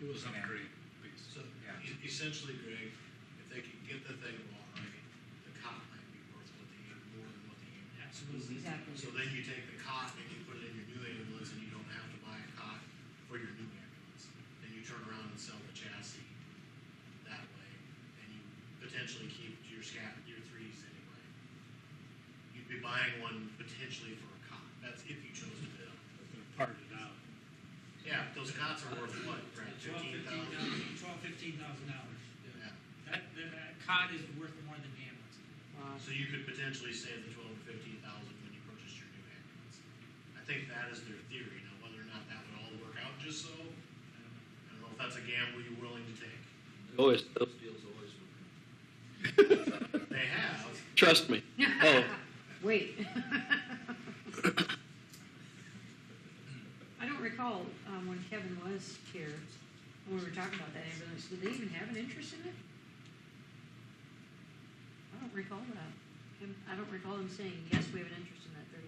do is Yeah. upgrade piece. So Yeah. e- essentially, Greg, if they can get the thing online, the cot might be worth what they, more than what they have. Absolutely. Exactly. So then you take the cot and you put it in your new ambulance and you don't have to buy a cot for your new ambulance. Then you turn around and sell the chassis that way and you potentially keep your scat, your threes anyway. You'd be buying one potentially for a cot. That's if you chose to bid on. it. part it out. Yeah, those cots are worth what, Brad? Twelve, Fifteen fifteen thousand? thousand, twelve, fifteen thousand dollars. Yeah. That, that, that cot is worth more than the ambulance. So you could potentially save the twelve to fifteen thousand when you purchase your new ambulance. I think that is their theory. Now, whether or not that would all work out just so, I don't know if that's a gamble you're willing to take. Always, Deals always work out. They have, trust me. Oh, Wait. I don't recall um, when Kevin was here, when we were talking about that ambulance, did they even have an interest in it? I don't recall that. Him- I don't recall him saying, yes, we have an interest in that third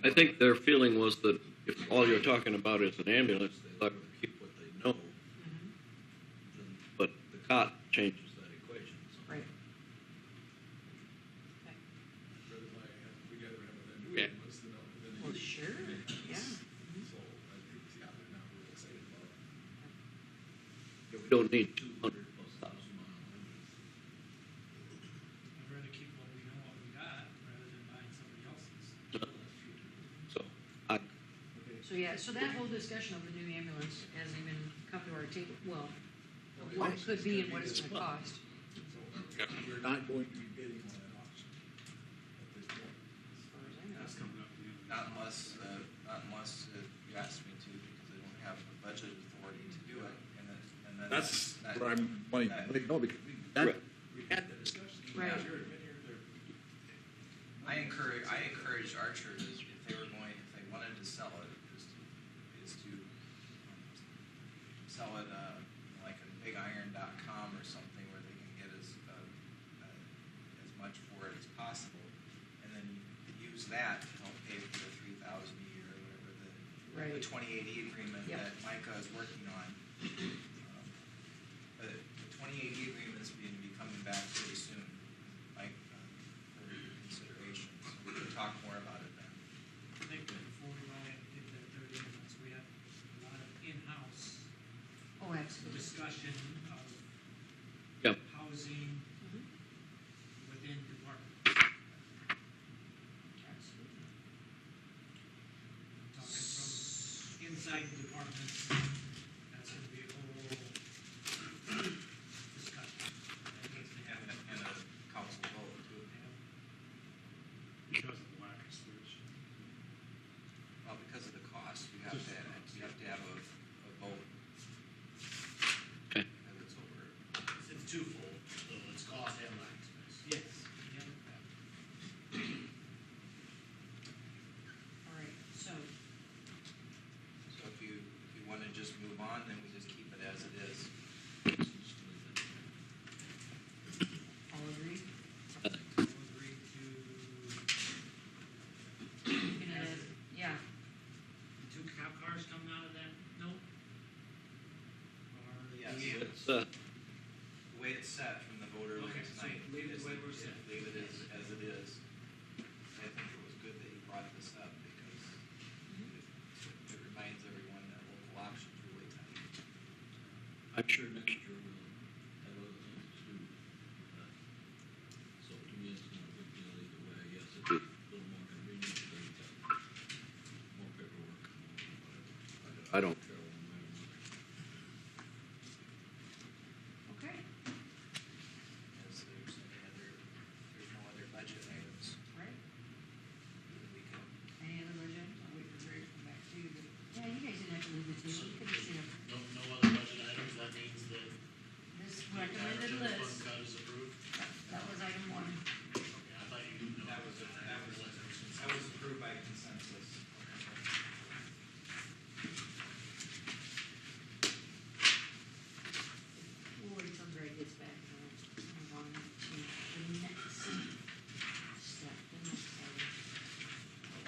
ambulance. I think their feeling was that if all you're talking about is an ambulance, they'll keep what they know, Then but the cot changes. there's that equation. So Right. rather than I have, we gotta have a new Yeah. ambulance than a- than a Well, used sure, ambulance. yeah. So I think, yeah, they're not really excited about it. We don't need two hundred plus thousand mile hundreds. I'd rather keep what we know what we got rather than buying somebody else's. So I, So, yeah, so that whole discussion of the new ambulance hasn't even come to our table, well, Okay, what this it is could be gonna and what this it's gonna month. cost. So We're not going to be bidding on an auction at this point. as far as I know. That's coming up. at the end of Not this month. unless, uh, not unless uh, you ask me to, because I don't have the budget authority to do it, and then, and then. That's that- where I'm wanting, that- like, no, because we, that, we had that discussion. Right. Here, and here, there. I encourage, I encourage archers is if they were going, if they wanted to sell it, is to, is to um, sell it uh, like a bigiron.com or something where they can get as uh, uh, as much for it as possible, and then use that to help pay for the three thousand a year or whatever the the Right. twenty eighty agreement Yep. that Micah is working on. Um, But the twenty eighty agreement is going to be coming back pretty soon, like, um, for your consideration, so we can talk more about it then. I think that before we buy it, get that third ambulance, we have a lot of in-house Oh, absolutely. discussion of Yep. housing Mhm. within department. Absolutely. Talking from inside the department, that's gonna be a whole discussion. That needs to And, happen. a- and a council vote too, Because of the lack of switch. well, because of the cost, you have to, you have to have a, a vote. Okay. Because it's over. It's- it's twofold, so it's cost and lack of space. Yes. Yeah. All right, so, So if you, if you wanna just move on, then we just keep it as it is. all agree? We'll agree to You're gonna, yeah, the two cop cars coming out of that note? Or? Yes. Yeah. it's, uh, The way it's set from the voter Okay, last so night. leave is- it the way we're set. Leave it as, as it is. I think it was good that you brought this up because it- it reminds everyone that local options really tight. I'm sure Sure, next year we'll have other things to do. but- So to me, it's not a big deal either way. Yes, it's a little more convenient because you've got uh, more paperwork and whatever. I don't- care one way or another. okay, As there's any other, there's no other budget items all right. that we can. Any other versions? I'll wait for Terry to come back to you, but, yeah, you guys didn't have to leave the table, you could just, you know, No, no other budget items, that means that this the average recommended of the fund list.